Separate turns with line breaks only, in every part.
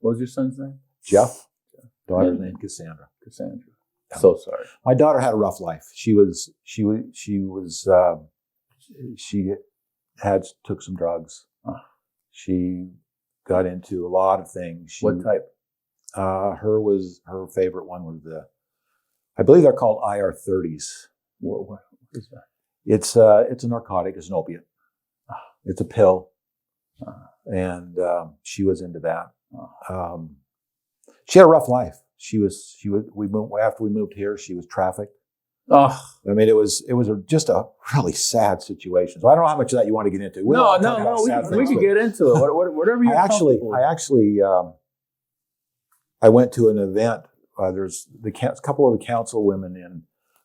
What was your son's name?
Jeff, daughter
Yeah.
named Cassandra.
Cassandra.
Yeah.
So sorry.
My daughter had a rough life. She was she was she was uh, she had took some drugs.
Ah.
She got into a lot of things. She,
What type?
Uh, her was her favorite one was the, I believe they're called IR thirties.
What, what is that?
It's uh, it's a narcotic. It's an opiate. It's a pill,
Ah.
and um, she was into that.
Ah.
Um, she had a rough life. She was she was we moved after we moved here. She was trafficked.
Oh,
I mean, it was it was a, just a really sad situation. So I don't know how much of that you want to get into. We
no,
don't
no,
wanna talk
no. We,
about
can-
sad
we
things,
could
but
get into it. What- what- Whatever you
I actually I actually um, I went to an event. Uh, there's the coun- a couple of the council women in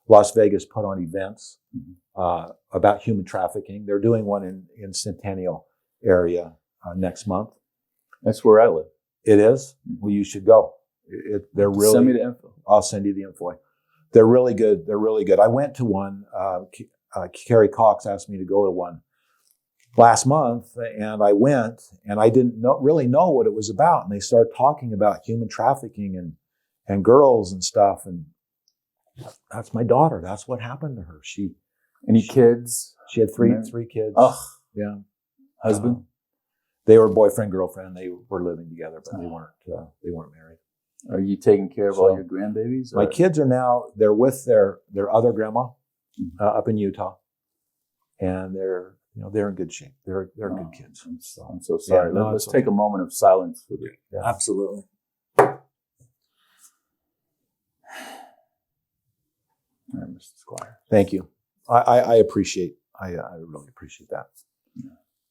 Las Vegas put on events
Mhm.
uh, about human trafficking. They're doing one in in Centennial area uh, next month.
That's where I live.
It is.
Mhm.
Well, you should go. It, it- they're really.
Send me the info.
I'll send you the info. They're really good. They're really good. I went to one. Uh, K- uh, Carrie Cox asked me to go to one last month, and I went, and I didn't know, really know what it was about. And they started talking about human trafficking and and girls and stuff. And that's my daughter. That's what happened to her. She
Any kids?
she had three
Mar-
three kids.
Ugh.
yeah.
Husband?
Um, they were boyfriend girlfriend. They were living together, but they
Oh.
weren't uh, they weren't married.
Are you taking care of all
So-
your grandbabies?
My
or-
kids are now they're with their their other grandma uh, up in Utah, and they're you know they're in good shape. They're they're
Oh,
good kids.
I'm so, I'm so sorry.
Yeah, no,
Let- Let's
it's
take
okay.
a moment of silence for the.
Absolutely.
All right, Mr. Squire.
Thank you. I I, I appreciate I uh, I really appreciate that.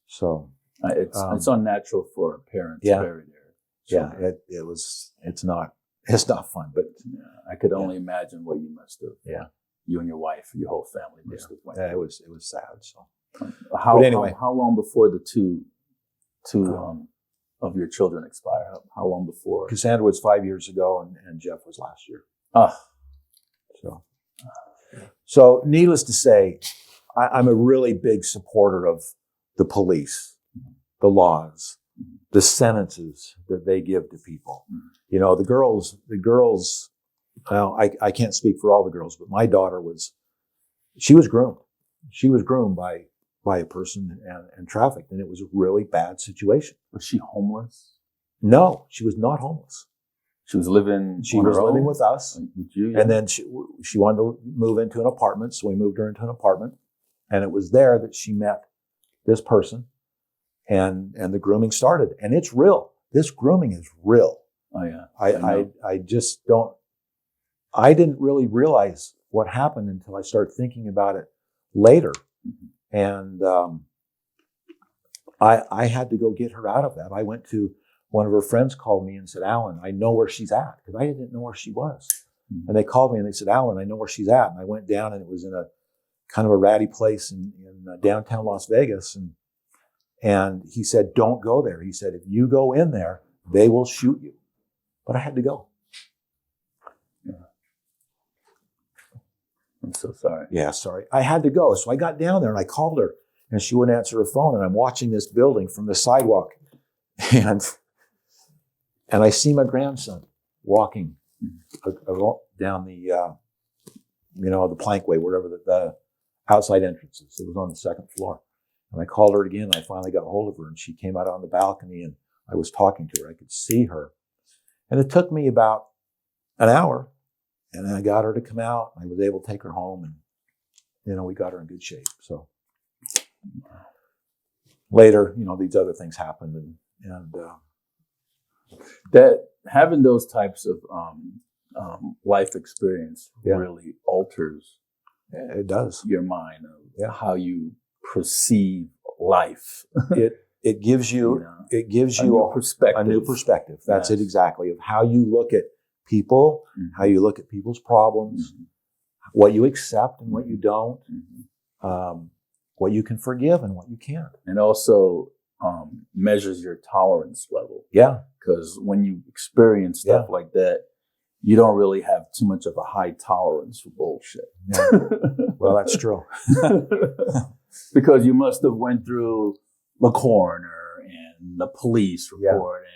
So
Uh, it's
Um,
it's unnatural for a parent
yeah.
to bury their.
yeah,
children.
it, it was it's not it's not fun, but
I could
Yeah.
only imagine what you must have.
Yeah.
You and your wife, your whole family must have went.
yeah, it was it was sad. So
through. How,
but anyway.
how how long before the two two
Um,
um, of your children expire? How, how long before?
Cassandra was five years ago, and, and Jeff was last year.
Ah,
So, so needless to say, I, I'm a really big supporter of the police, the laws, the sentences that they give to people. You know, the girls, the girls. Well, I, I can't speak for all the girls, but my daughter was, she was groomed. She was groomed by by a person and, and trafficked, and it was a really bad situation.
was she homeless?
No, she was not homeless.
She was living.
She
on
was
her
living
own?
with us.
with you.
And then she, she wanted to move into an apartment, so we moved her into an apartment. And it was there that she met this person, and and the grooming started. And it's real. This grooming is real.
oh yeah.
I
I
I,
know.
I just don't. I didn't really realize what happened until I started thinking about it later,
Mhm.
and um, I I had to go get her out of that. I went to one of her friends called me and said, "Alan, I know where she's at," because I didn't know where she was.
Mhm.
And they called me and they said, "Alan, I know where she's at." And I went down, and it was in a kind of a ratty place in, in uh, downtown Las Vegas, and and he said, "Don't go there." He said, "If you go in there, they will shoot you." But I had to go.
I'm so sorry.
Yeah, sorry. I had to go. So I got down there and I called her and she wouldn't answer her phone. And I'm watching this building from the sidewalk. And and I see my grandson walking a- a- down the uh, you know, the plankway, wherever the, the outside entrance is. It was on the second floor. And I called her again. And I finally got hold of her and she came out on the balcony and I was talking to her. I could see her. And it took me about an hour. And I got her to come out. I was able to take her home and you know, we got her in good shape. So later, you know, these other things happened, and and uh,
that having those types of um, um, life experience
Yeah.
really alters
it does.
your mind of
Yeah.
how you perceive life.
It it gives
You
you
know,
it gives
a new
you a,
perspective.
a new perspective. That's it
Yes.
exactly of how you look at people,
Mhm.
how you look at people's problems,
Mhm.
what you accept and what you don't,
Mhm.
um, what you can forgive and what you can't.
And also um, measures your tolerance level
Yeah,
because when you experience stuff like that, you don't really have too much of a high tolerance for bullshit.
well, that's true.
because you must have went through the coroner and the police
Yeah.
report